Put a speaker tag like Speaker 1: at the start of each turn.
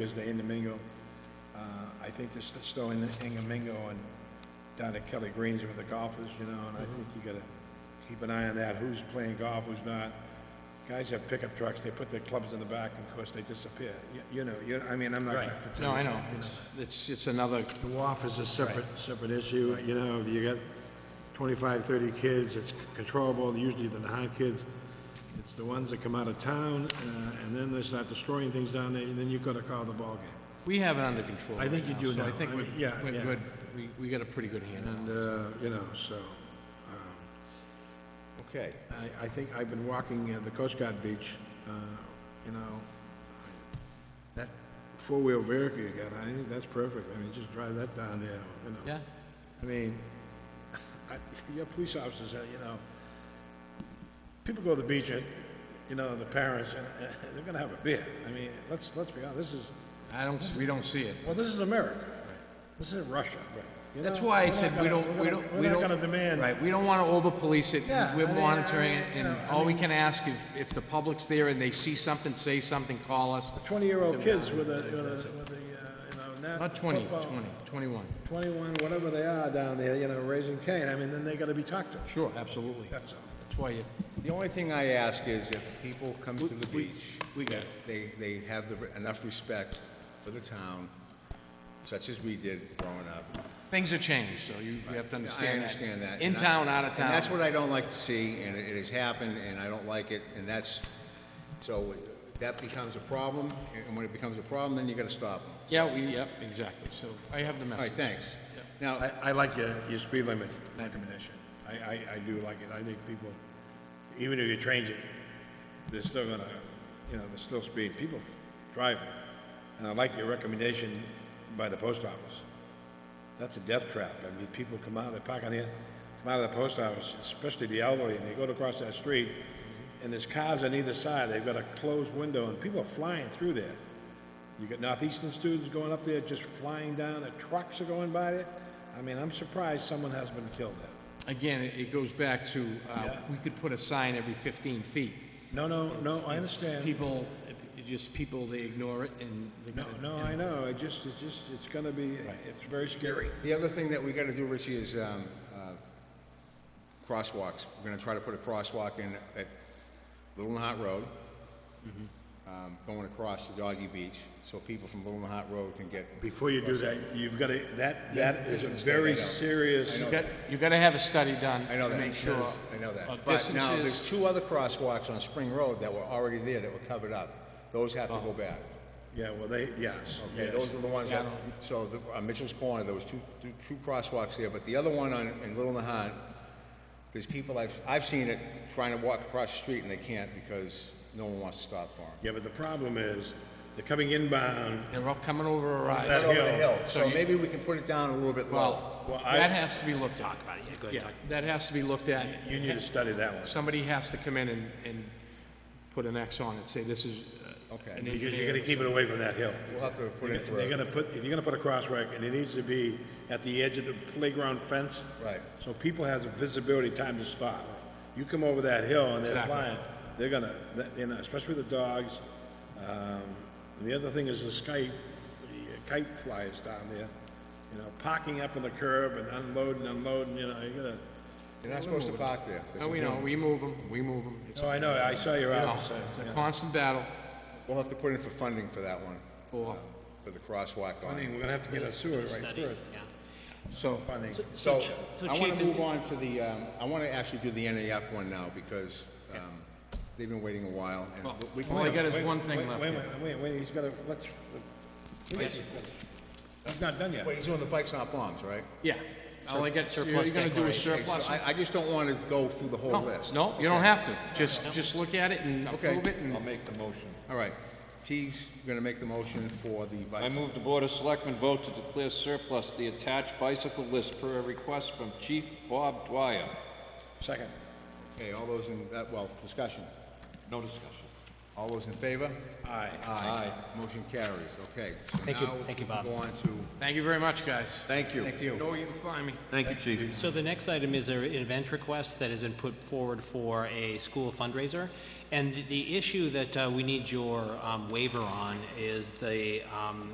Speaker 1: because they're in the Mingo. Uh, I think there's still in the Ingo Mingo and down at Kelly Greens with the golfers, you know, and I
Speaker 2: Mm-hmm.
Speaker 1: think you gotta keep an eye on that, who's playing golf, who's not. Guys have pickup trucks, they put their clubs in the back, and of course, they disappear. You- You know, you, I mean, I'm not gonna have to tell you.
Speaker 2: No, I know, it's, it's, it's another,
Speaker 1: The WAF is a separate, separate issue, you know, if you got 25, 30 kids, it's controllable, usually the non kids. It's the ones that come out of town, uh, and then they start destroying things down there, and then you've got to call the ballgame.
Speaker 2: we have it under control.
Speaker 1: I think
Speaker 2: right
Speaker 1: you do
Speaker 2: so I
Speaker 1: now.
Speaker 2: think
Speaker 1: I
Speaker 2: we're,
Speaker 1: mean, yeah,
Speaker 2: we're
Speaker 1: yeah.
Speaker 2: good, we, we got a pretty good handle.
Speaker 1: And, uh, you know, so, um,
Speaker 3: Okay.
Speaker 1: I, I think I've been walking uh, the Coast Guard beach, uh, you know, that four-wheel vehicle you got, I think that's perfect, I mean, just drive that down there, you know.
Speaker 2: Yeah,
Speaker 1: I mean, I, your police officers, uh, you know, people go to the beach, uh, you know, the parents, and uh, they're gonna have a beer. I mean, let's, let's be honest, this is,
Speaker 2: I don't, we don't see it.
Speaker 1: well, this is America. This is Russia. you
Speaker 2: That's
Speaker 1: know?
Speaker 2: why
Speaker 1: We're
Speaker 2: I
Speaker 1: not
Speaker 2: said we
Speaker 1: gonna-
Speaker 2: don't, we
Speaker 1: we're
Speaker 2: don't,
Speaker 1: gonna-
Speaker 2: we don't.
Speaker 1: We're not gonna demand,
Speaker 2: Right, we don't wanna over-police it,
Speaker 1: Yeah, I
Speaker 2: we're
Speaker 1: mean, I
Speaker 2: monitoring
Speaker 1: mean,
Speaker 2: it,
Speaker 1: you
Speaker 2: and
Speaker 1: know, I
Speaker 2: all we can ask, if, if the public's there and they see something, say something, call us.
Speaker 1: twenty-year-old kids with a, with a, with a, uh, you know, not
Speaker 2: Not 20, 20,
Speaker 1: football,
Speaker 2: 21.
Speaker 1: Twenty-one, whatever they are down there, you know, raising Cain, I mean, then they gotta be talked to.
Speaker 2: Sure, absolutely. That's why you,
Speaker 3: The only thing I ask is if people come to the beach,
Speaker 2: we got it.
Speaker 3: they, they have the- enough respect for the town, such as we did growing up.
Speaker 2: Things have changed, so you, you have to
Speaker 3: I
Speaker 2: understand that.
Speaker 3: understand that.
Speaker 2: In
Speaker 3: and I-
Speaker 2: town, out of town.
Speaker 3: And that's what I don't like to see, and it it has happened, and I don't like it, and that's, so that becomes a problem, and when it becomes a problem, then you gotta stop them.
Speaker 2: Yeah, we, yep, exactly, so I have the
Speaker 3: All right,
Speaker 2: message.
Speaker 3: thanks. Now,
Speaker 1: I, I like your, your speed limit recommendation. I, I, I do like it. I think people, even if you change it, they're still gonna, you know, they're still speed. People drive. And I like your recommendation by the post office. That's a death trap. I mean, people come out, they park on the, come out of the post office, especially the elderly, and they go across that street, and there's cars on either side. They've got a closed window, and people are flying through there. You got Northeastern students going up there, just flying down, the trucks are going by there. I mean, I'm surprised someone hasn't been killed there.
Speaker 2: Again, it it goes back to, uh, we could put a sign every 15 feet.
Speaker 1: No, no, no, I understand.
Speaker 2: People, it just people, they ignore it and they
Speaker 1: No,
Speaker 2: gotta-
Speaker 1: no, I know, it just, it's just, it's gonna be, it's very scary.
Speaker 3: the other thing that we gotta do, Richie, is, um, uh, crosswalks. We're gonna try to put a crosswalk in at Little Hot Road,
Speaker 2: Mm-hmm.
Speaker 3: um, going across to Doggy Beach, so people from Little Hot Road can get
Speaker 1: Before you do that, you've gotta, that, that is a very serious,
Speaker 2: You got, you gotta have a study done.
Speaker 3: I know
Speaker 2: to
Speaker 3: that.
Speaker 2: Make sure.
Speaker 3: I know that.
Speaker 2: of
Speaker 3: But now,
Speaker 2: distances.
Speaker 3: there's two other crosswalks on Spring Road that were already there that were covered up. Those have to
Speaker 2: Oh.
Speaker 3: go back.
Speaker 1: yeah, well, they, yes,
Speaker 3: Okay,
Speaker 1: yes.
Speaker 3: those are the ones that, so the- on Mitchell's Corner, there was two, two, two crosswalks there, but the other one on, in Little Nahat, there's people I've, I've seen it trying to walk across the street and they can't because no one wants to stop for them.
Speaker 1: Yeah, but the problem is, they're coming inbound,
Speaker 2: They're all coming over a rise.
Speaker 1: That
Speaker 3: Right over the
Speaker 1: hill.
Speaker 3: hill, so maybe we can put it down a little bit lower.
Speaker 2: Well,
Speaker 1: Well, I-
Speaker 2: that has to be looked at. Yeah, that has to be looked at.
Speaker 1: you need to study that one.
Speaker 2: Somebody has to come in and, and put an X on it, say this is uh,
Speaker 3: Okay.
Speaker 2: an
Speaker 1: Because you're
Speaker 2: engineer.
Speaker 1: gonna keep it away from that hill.
Speaker 3: We'll have to put it for,
Speaker 1: They're gonna put, if you're gonna put a crosswalk, and it needs to be at the edge of the playground fence.
Speaker 3: Right.
Speaker 1: So people has a visibility time to stop. You come over that hill and they're
Speaker 2: Exactly.
Speaker 1: flying, they're gonna, that- you know, especially with the dogs. Um, and the other thing is the sky, the kite flies down there, you know, parking up on the curb and unloading, unloading, you know, you're gonna,
Speaker 3: you're not supposed to park there.
Speaker 2: No, we know, we move them, we move them. It's
Speaker 1: oh, I know, I saw your
Speaker 2: no,
Speaker 1: office.
Speaker 2: it's a constant battle
Speaker 3: We'll have to put in for funding for that one,
Speaker 2: for,
Speaker 3: for the crosswalk
Speaker 1: I
Speaker 3: on.
Speaker 1: mean, we're gonna have to get a sewer right first.
Speaker 2: so,
Speaker 1: Funny.
Speaker 3: So,
Speaker 4: Ch-
Speaker 3: I
Speaker 4: so
Speaker 3: want
Speaker 4: Chief,
Speaker 3: to
Speaker 4: in-
Speaker 3: move on to the, um, I want to actually do the NAF one now, because um, they've been waiting a while, and
Speaker 2: well,
Speaker 3: we
Speaker 2: all I
Speaker 3: can,
Speaker 2: got is
Speaker 1: Wait,
Speaker 2: one
Speaker 1: wait,
Speaker 2: thing left
Speaker 1: Wait,
Speaker 2: here.
Speaker 1: wait, wait, wait, he's gotta, let's, please, he's not done yet.
Speaker 3: wait, he's doing the bikes not bombs, right?
Speaker 2: Yeah, all I got, you're
Speaker 4: Surplus
Speaker 2: gonna do a
Speaker 4: declaration.
Speaker 3: Okay, so
Speaker 2: surplus.
Speaker 3: I, I just don't want to go through the whole
Speaker 2: No,
Speaker 3: list.
Speaker 2: no, you don't have to, just, just look at it and
Speaker 3: Okay.
Speaker 2: approve it and.
Speaker 5: make the motion.
Speaker 3: All right, Teague's going to make the motion for the
Speaker 5: I
Speaker 3: bikes.
Speaker 5: move the Board of Selectmen vote to declare surplus the attached bicycle list per a request from Chief Bob Dwyer.
Speaker 1: Second.
Speaker 3: Okay, all those in, uh, well, discussion.
Speaker 5: No discussion.
Speaker 3: All those in favor?
Speaker 1: Aye.
Speaker 3: Aye. Motion carries, okay. so
Speaker 4: Thank you-
Speaker 3: now
Speaker 4: thank you,
Speaker 3: we can
Speaker 4: Bob.
Speaker 3: Go on to,
Speaker 2: Thank you very much, guys.
Speaker 5: Thank you.
Speaker 3: thank you.
Speaker 2: Know where you can find me.
Speaker 5: Thank you, Chief.
Speaker 4: So the next item is a- an event request that has been put forward for a school fundraiser. And the- the issue that uh, we need your um, waiver on is the um,